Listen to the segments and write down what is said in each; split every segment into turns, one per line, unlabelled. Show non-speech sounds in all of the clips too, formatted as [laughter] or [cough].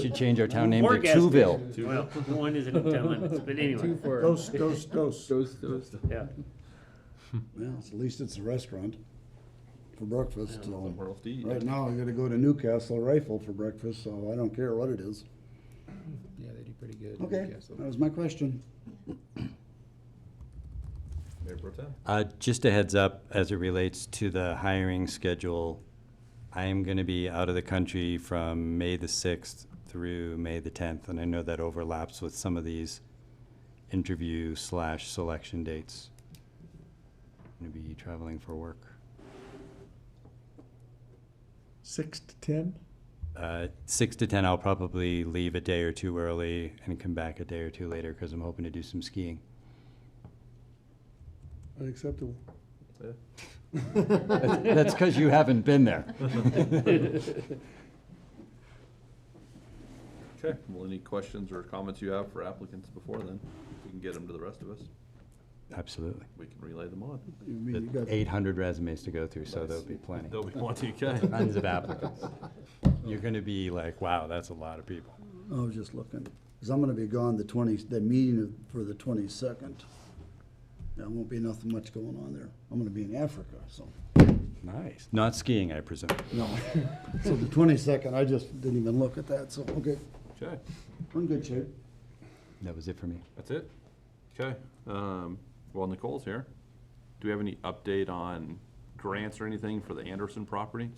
Should change our town name to
Or gas station.
Tuville.
Well, one isn't in town limits, but anyway,
Dos, dos, [laughs] dos.
yeah.
Well, at least it's a restaurant for breakfast, so.
World eat.
Right now, I gotta go to Newcastle Rifle for breakfast, so I don't care what it is.
Yeah, they do pretty good. in
Okay,
Newcastle.
that was my question.
Mayor Pro Tem.
Uh, Just a heads up, as it relates to the hiring schedule, I am going to be out of the country from May the 6th through May the 10th, and I know that overlaps with some of these interview slash selection dates. I'm going to be traveling for work.
Six to ten?
Uh, 6 to 10, I'll probably leave a day or two early and come back a day or two later because I'm hoping to do some skiing.
Unacceptable.
That's because you haven't been there.
Okay, well, any questions or comments you have for applicants before then? We can get them to the rest of us.
Absolutely.
We can relay them on.
You mean, you got-
800 resumes to go through, so there'll be plenty.
They'll be wanting, okay.
Tons of applicants. You're going to be like, wow, that's a lot of people.
I was just looking, cause I'm gonna be gone the twenty, the meeting of- for the twenty-second. There won't be nothing much going on there. I'm gonna be in Africa, so.
Nice. Not skiing, I presume.
No. [laughs] So the twenty-second, I just didn't even look at that, so, okay,
Okay,
we're in good shape.
That was it for me.
that's it? Okay, um, well, Nicole's here. Do we have any update on grants or anything for the Anderson property?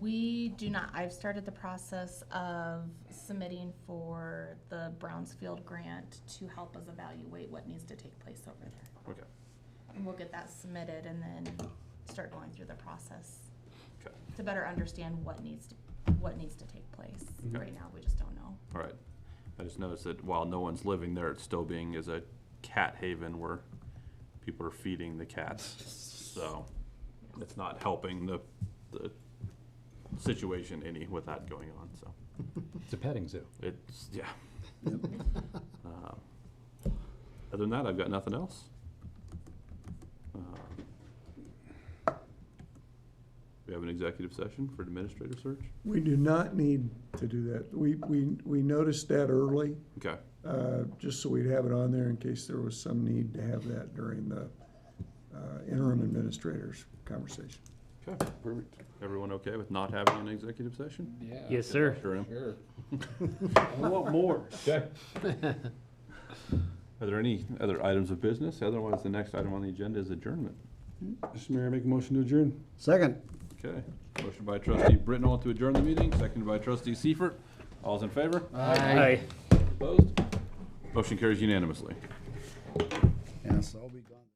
We do not, I've started the process of submitting for the Brownsfield grant to help us evaluate what needs to take place over there.
Okay,
And we'll get that submitted and then start going through the process
okay,
to better understand what needs to, what needs to take place. Right now, we just don't know.
all right. I just noticed that while no one's living there, it's still being as a cat haven where people are feeding the cats. So it's not helping the, the situation any with that going on, so.
It's a petting zoo.
It's, yeah. [laughs] Um, Other than that, I've got nothing else. Um, Uh, We have an executive session for administrator search?
We do not need to do that. We, we, we noticed that early,
Okay,
uh, just so we'd have it on there in case there was some need to have that during the uh, interim administrators conversation.
okay. Perfect. Everyone okay with not having an executive session?
Yeah.
Yes, sir.
Sure am.
Sure.
[laughs] I want more.
[laughs] Okay. Are there any other items of business? Otherwise, the next item on the agenda is adjournment.
Mr. Mayor, make a motion to adjourn.
Second.
Okay, motion by trustee Britnall to adjourn the meeting, seconded by trustee Seifert. All's in favor?
Aye.
Opposed? Motion carries unanimously.
Yes, I'll be gone.